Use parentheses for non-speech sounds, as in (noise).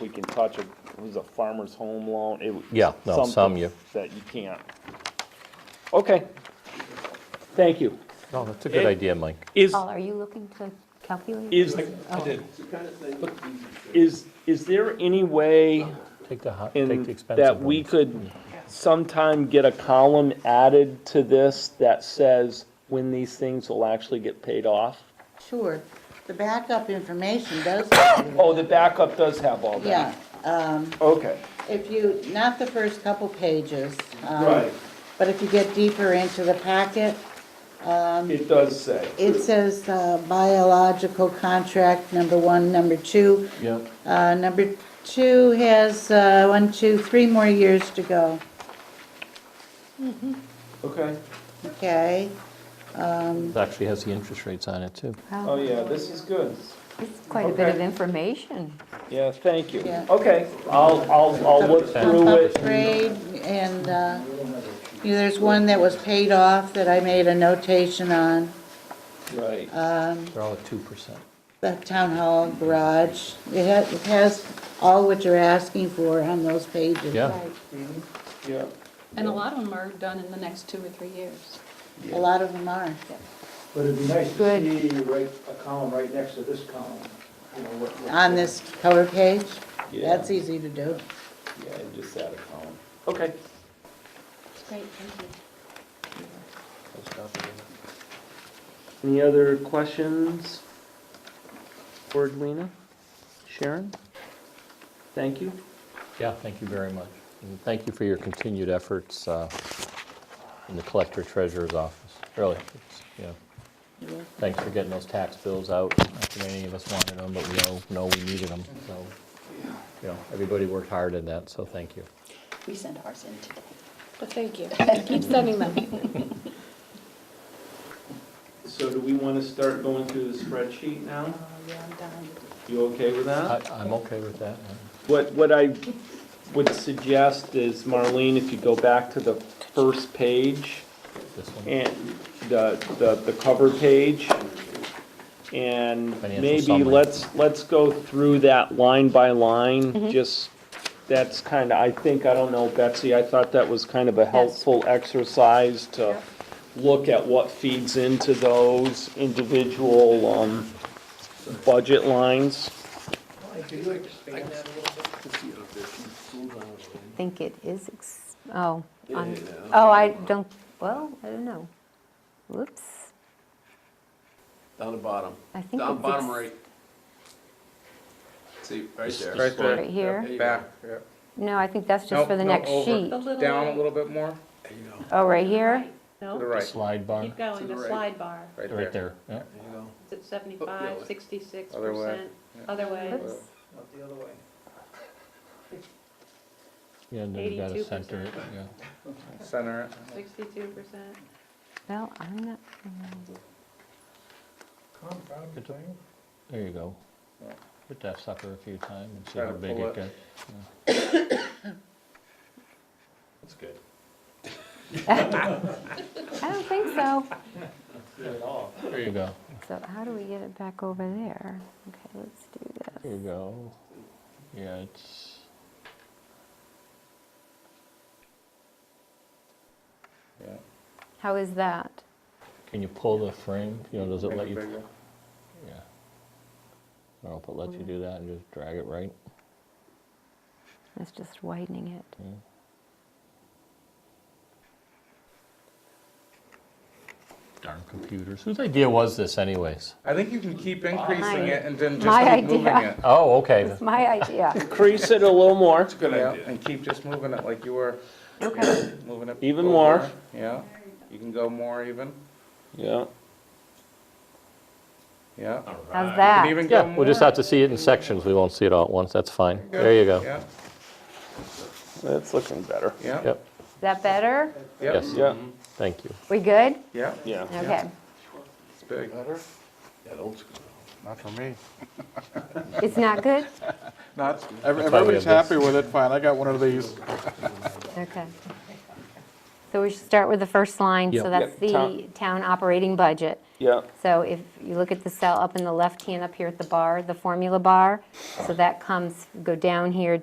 we can touch a, it was a farmer's home loan, it was. Yeah, no, something some you- That you can't. Okay, thank you. No, that's a good It- idea, Mike. Is, Paul, are you looking to calculate? is, I did. is, is there any way Take the, hot- take the in, expensive that we ones. could sometime get a column added to this that says when these things will actually get paid off? Sure, the backup information does, have it. Oh, the backup does have all that? yeah, um, Okay. if you, not the first couple pages. um, But if you get deeper into the packet, It does say. it says uh, biological contract, number one, number two. Yep. Uh, number two has, uh, one, two, three more years to go, Okay. okay? It actually has the interest rates on it, too. Oh, yeah, this is good. It's quite a bit of Okay. information. Yeah, thank you. Yeah. Okay, I'll, I'll, I'll look through Pump it. up grade, and, uh, you know, there's one that was paid off that I made a notation on. Right. Uh, They're all at 2%. the town hall garage. It has, it has all what you're asking for on those pages. Yeah. Yeah. And a lot of them are done in the next two or three years. A lot of them are. But it'd be nice to Good. see you write a column right next to this column, you know, what. what- On this cover page, Yeah. that's easy to do. Yeah, and just add a column. Okay. Great, thank you. Any other questions for Edwina? Sharon? Thank you. Yeah, thank you very much. And thank you for your continued efforts uh, in the collector treasurer's office, really. it's, you know, Thanks for getting those tax bills out. Not that many of us wanted them, but we all know we needed them, so, you know, everybody worked hard in that, so thank you. We sent ours in today. But thank you. Keep sending them. So do we want to start going through the spreadsheet now? Uh, Yeah, I'm done. You okay with that? I- I'm okay with that. uh, What, what I would suggest is, Marlene, if you go back to the first page This one, and the, the, the cover page, and Financial maybe summary. let's, let's go through that line by line, just, that's kind of, I think, I don't know, Betsy, I thought that was kind of a helpful exercise to look at what feeds into those individual, um, budget lines. I think it is, ex- oh, on, oh, I don't, well, I don't know. Whoops, Down the bottom. I think Down it's bottom ex- right. See, right there. Right there. right here. There you go. Back, yeah. No, I think that's just Nope, for the no, next over. sheet. The little Down a light. little bit more, There you go. Oh, right here? to the No, right, slide bar, keep going, To the the right. slide bar. right right there. there. yeah. There you go. It's at seventy-five, sixty-six Oh, Other way. percent. Other way. Oops. Not the other way. Yeah, and then you gotta 82%. center it, yeah. Center it. Sixty-two percent. Well, I'm not, There you go. Hit that sucker a few times and see Try how to big pull it it. gets. That's good. I don't think so. There you go. So how do we get it back over there? Okay, let's do this. There you go. Yeah, it's. Yeah. How is that? Can you pull the frame? You know, does it Make let it you? bigger. Yeah. I don't know if it lets you do that and just drag it right. It's just widening it. Yeah. Darn computers. Whose idea was this, anyways? I think you can keep increasing My- it and then my just keep moving idea. it. Oh, okay. It's my idea. Crease it a little more. Good And keep just moving it like you were Okay, (coughs) moving it. Even over. more. Yeah, you can go more even, Yeah. yeah. how's You that? can even go Yeah, more. we'll just have to see it in sections. We won't see it all at once. That's fine. There you go. Yeah, That's looking better. yeah, Yep, Is that better? yeah, yes, Yeah, thank you. We good? yeah, yeah. Okay. it's big. That old school. Not for me. It's not good? Not, ev- why we everybody's have this. happy with it, fine, I got one of these. Okay. So we should start with the first line, Yep. so that's Yep, town- the town operating budget. Yeah, So if you look at the cell up in the left hand up here at the bar, the formula bar. So that comes, go down here